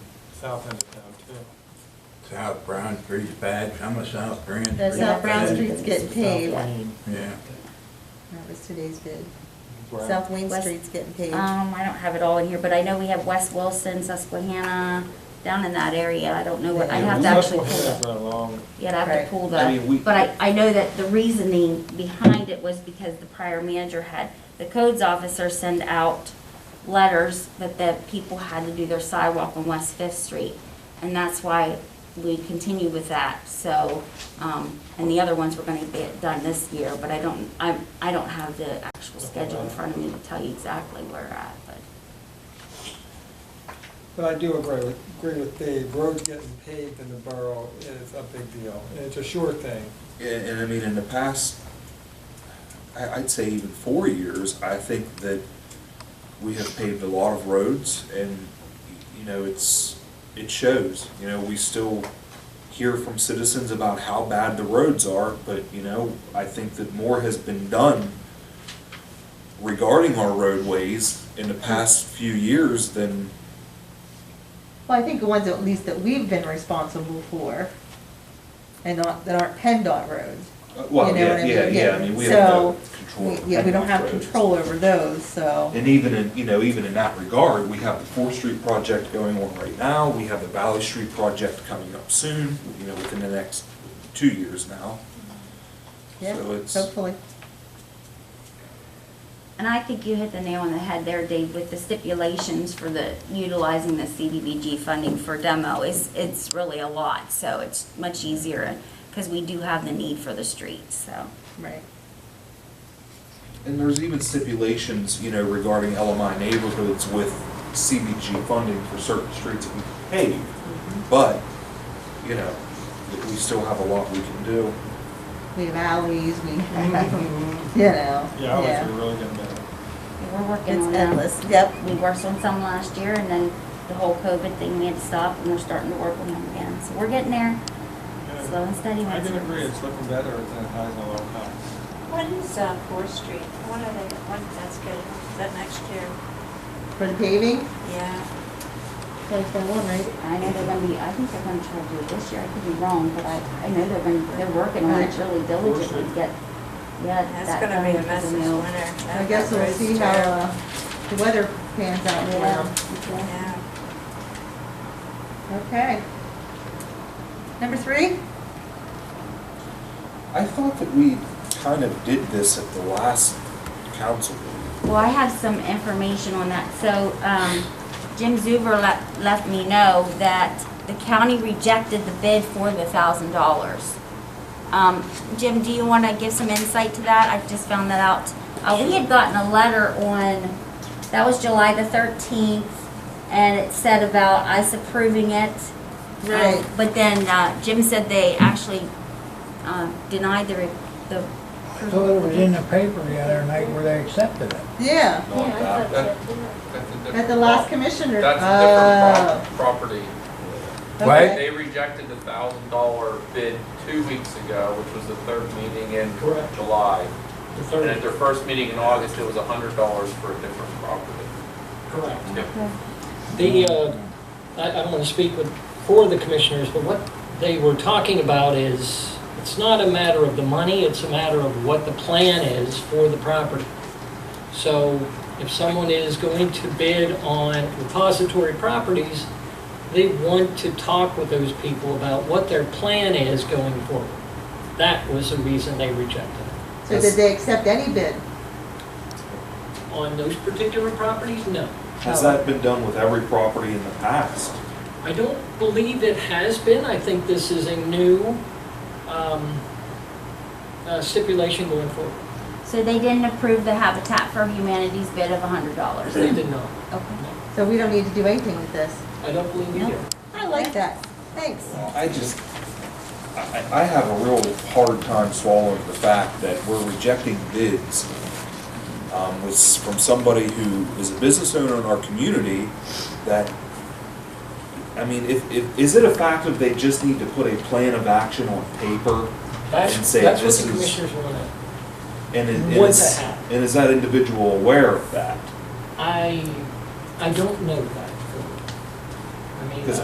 south end of town too. South Brown Street's bad, some of South Grand Street's The bad. South Brown Street's getting South paved. Lane. Yeah. That was today's bid. Right. South Wayne West- Street's getting paved. Um, I don't have it all in here, but I know we have West Wilson, Susquehanna, down in that area. I don't know what, I Yeah, have to actually pull it. Susquehanna's not long. Yeah, I'd have Right. to pull I mean, we- the, but I, I know that the reasoning behind it was because the prior manager had the codes officer send out letters that the people had to do their sidewalk on West Fifth Street. And that's why we continued with that, so, um, and the other ones were gonna get done this year, but I don't, I, I don't have the actual schedule in front of me to tell you exactly where we're at, but. But I do agree with, agree with Dave, roads getting paved in the borough is a big deal, and it's a sure thing. And, and I mean, in the past, I, I'd say even four years, I think that we have paved a lot of roads and, you know, it's, it shows. You know, we still hear from citizens about how bad the roads are, but, you know, I think that more has been done regarding our roadways in the past few years than, Well, I think the ones at least that we've been responsible for and not, that aren't PennDOT roads. uh, well, You know what I yeah, yeah, mean? yeah, I mean, we have no control. We- over Yeah, we don't have roads. control over those, so. And even in, you know, even in that regard, we have the Fourth Street project going on right now, we have the Valley Street project coming up soon, you know, within the next two years now. Yeah, So it's- hopefully. And I think you hit the nail on the head there, Dave, with the stipulations for the, utilizing the CDBG funding for demo is, it's really a lot, so it's much easier, because we do have the need for the streets, so. Right. And there's even stipulations, you know, regarding LMI neighborhoods with CBG funding for certain streets that we pave. But, you know, we still have a lot we can do. We have alleys, we, you know, Yeah, I was yeah. really getting better. We're working It's on that. endless, yep. We worked on some last year, and then the whole COVID thing, we had to stop, and we're starting to work on them again, so we're getting there, Yeah. slow and steady. I my can friends. agree, it's looking better than it has in a long time. What is uh, Fourth Street? What are they, what, that's good, is that next year? For the paving, Yeah, twenty twenty-one, right? I know they're gonna be, I think they're gonna try to do it this year, I could be wrong, but I, I know they're gonna, they're working on it really diligently to get, yeah, that. that's gonna be done a for mess the this mill. winter. I That- guess that we'll road's see how, terrible. uh, the weather pans out in the Yeah, world. yeah. Yeah. Okay. Number three? I thought that we kind of did this at the last council meeting. Well, I have some information on that. So, um, Jim Zuber let, let me know that the county rejected the bid for the thousand dollars. Um, Jim, do you wanna give some insight to that? I've just found that out. Uh, we had gotten a letter on, that was July the thirteenth, and it said about us approving it. Um, Right. But then, uh, Jim said they actually, uh, denied the, re- the. I thought it was in the paper the other night where they accepted it. Yeah, No, that, that, that's a different. at the last prop- commissioner. That's a different prop- property. Oh, Right. okay. They rejected the thousand dollar bid two weeks ago, which was the third meeting in Correct. July. The And at third, their first meeting in August, it was a hundred dollars for a different property. Correct. Yep. The, uh, I, I don't want to speak with, for the commissioners, but what they were talking about is, it's not a matter of the money, it's a matter of what the plan is for the property. So if someone is going to bid on repository properties, they want to talk with those people about what their plan is going forward. That was the reason they rejected it. So did they accept any bid? On those particular properties, no. Has that been done with every property in the past? I don't believe it has been. I think this is a new um, uh, stipulation going forward. So they didn't approve the Habitat for Humanity's bid of a hundred dollars? They did not. Okay. So we don't need to do anything with this. I don't believe we did. I like that. Thanks. Well, I just, I, I have a real hard time swallowing the fact that we're rejecting bids um, was from somebody who is a business owner in our community that, I mean, if, if, is it a fact that they just need to put a plan of action on paper? And That's, say that's what this the is- commissioners wanted. And it- and Would is, that happen? and is that individual aware of that? I, I don't know that.